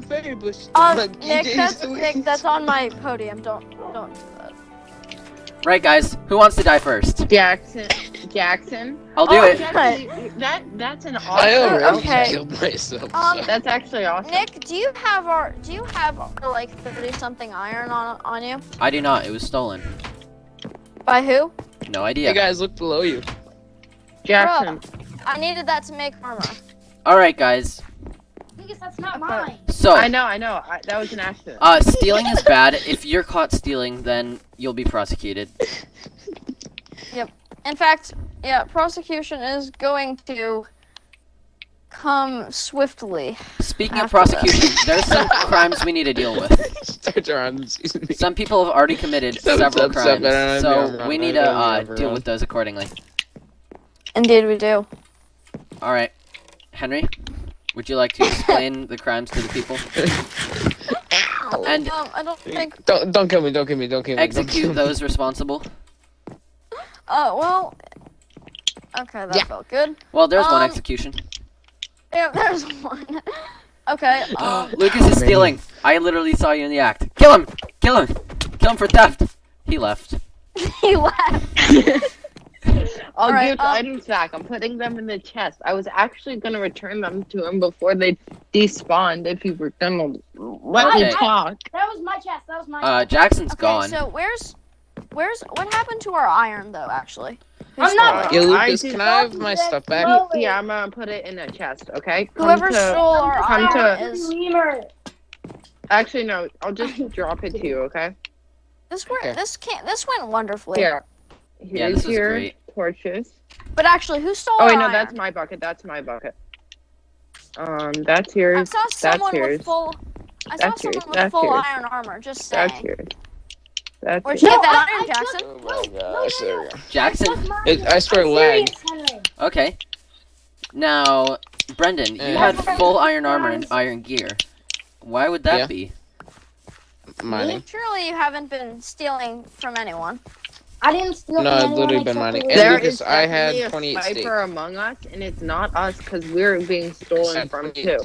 very bushy. Uh, like Nick, EJ's that's doing. Nick, that's on my podium. Don't don't do that. Right, guys, who wants to die first? Jackson. Jackson. I'll do Oh, it. yeah. Actually, that that's an I awesome. already okay. killed myself. Um, so- That's actually awesome. Nick, do you have our do you have our, like thirty something iron on on you? I do not. It was stolen. By who? No Hey idea. guys, look below you. Jackson. I needed that to make armor. All right, guys. Because that's not Okay. mine. So, I know. I know. I, that was an accident. Oh. uh, stealing is bad. If you're caught stealing, then you'll be prosecuted. In fact, yeah, prosecution is going to come swiftly. Speaking of After that. prosecution, there's some crimes we need to deal with. Start around and season me. Some people have already committed Some- several some- some- crimes, I don't know, so I'm we wrong, need I to don't know, uh, I'm deal wrong. with those accordingly. Indeed, we do. All right, Henry, would you like to explain the crimes to the people? And um, I don't think. Don't don't kill me, don't kill me, don't kill me. don't kill execute me. those responsible. Uh, well. Okay, that felt good. Well, there's Um, one execution. Yeah, there's one. okay. Um, Oh, Lucas is stealing. I literally saw you in the act. Kill him! Kill him! Kill him for theft. He left. he left. I'll Alright, give the um, items back. I'm putting them in the chest. I was actually gonna return them to him before they despawned if you were gonna let Okay. me talk. That was my chest. That was my. Uh, Jackson's Okay, gone. so where's, where's what happened to our iron though? Actually, I'm Who not- stole it? Yeah, I Lucas, did can I have my that stuff back? low- Slowly. Yeah, I'm gonna put it in a chest. Okay. Come Whoever to- stole our come to- iron is. Lemur. Actually, no. I'll just drop it to you. Okay. This went Okay. this can't this went wonderfully. Here. Yeah, Here's this was your great. torches. But actually, who stole? Oh wait, our no, iron? that's my bucket. That's my bucket. Um, that's I yours. saw someone yours. with full. I saw That's yours. someone with That's full yours. iron armor. Just saying. That's yours. That's Where'd yours. you get No, that I- iron, I took- Jackson? Oh my gosh, there we go. Jackson. That's mine. It- I swear I'm lag. serious, Henry. Okay. Now, Brendan, you Eh. had full iron armor and iron gear. Why would that Yeah. be? Mining. Surely you haven't been stealing from anyone. I didn't steal. No, from I've anyone literally except been for mining. Lou. And There Lucas, is I had definitely 28 a steak. sniper among us, and it's not us because we're being stolen from too.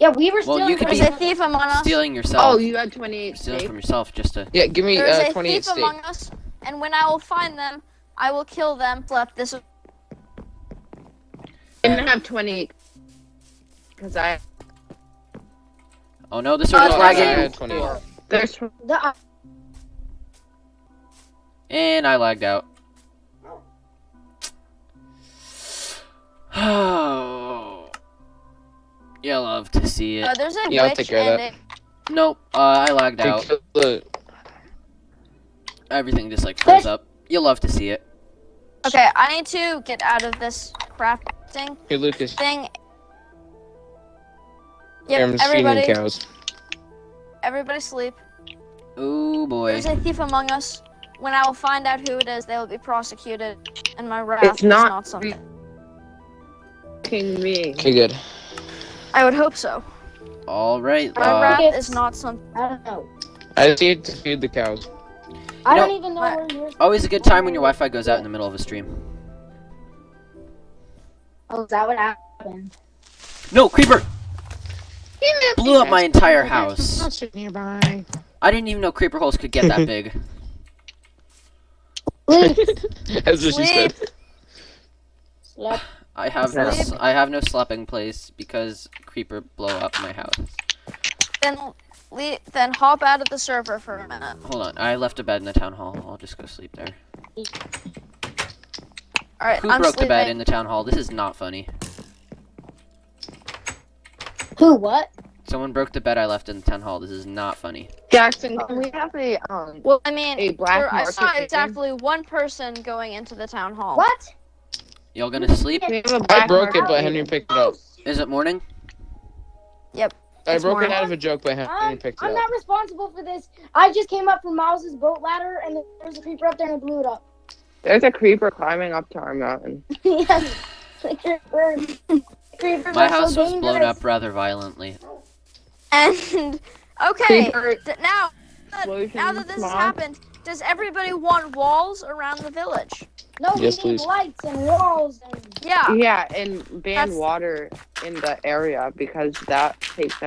Yeah, we were Well, stealing. you could There's be a thief among us. Stealing yourself. Oh, you had 28 stealing steak. from yourself just to. Yeah, give me There's uh, a 28 thief steak. among us, and when I will find them, I will kill them. Left. This is I didn't have 28 because I Oh no, the server's Oh, I lagging. had 28. there's The- uh, And I lagged out. Oh. you love to see uh, it. there's a Yeah, I'll take witch care of that. and a Nope, uh, I lagged Dude, out. kill the- Everything just like froze up. you love to see it. Okay, I need to get out of this crafting Hey Lucas, thing. I'm Yep, feeding everybody, cows. everybody sleep. Oh boy. There's a thief among us. When I will find out who it is, they will be prosecuted, and my wrath It's is not- not something. fucking me. Okay, good. I would hope so. All right. My uh, wrath Rockets. is not something. I don't know. I just need to feed the cows. I You don't even know my- where yours. always a good time when your Wi-Fi goes out in the middle of a stream. Oh, is that what happened? No, creeper blew up my entire house. nearby. I didn't even know creeper holes could get that big. That's what she said. Slept. I have no, s- I have no slapping place because creeper blow up my house. Then, le- then hop out of the server for a minute. Hold on, I left a bed in the town hall. I'll just go sleep there. All right, Who I'm broke sleeping. the bed in the town hall? This is not funny. Who? What? Someone broke the bed I left in the town hall. This is not funny. Jackson, can we have a um well, I mean, a black there- I saw market? exactly one person going into the town hall. What? Y'all gonna sleep? Oh. We have a I black broke it, market but Henry meeting. picked it up. Is it morning? I It's broke it mine. out of a joke, but Um, Hen- Henry I'm, picked it I'm up. not responsible for this. I just came up from Miles's boat ladder, and there was a creeper up there, and it blew it up. There's a creeper climbing up to our mountain. yes. The creeper- the creepers My are so house was blown dangerous. up rather violently. And okay, Creeper d- now that- explosion now that this has smog. happened, does everybody want walls around the village? No, Yes, we need please. lights and walls and Yeah. Yeah, and ban That's- water in the area because that takes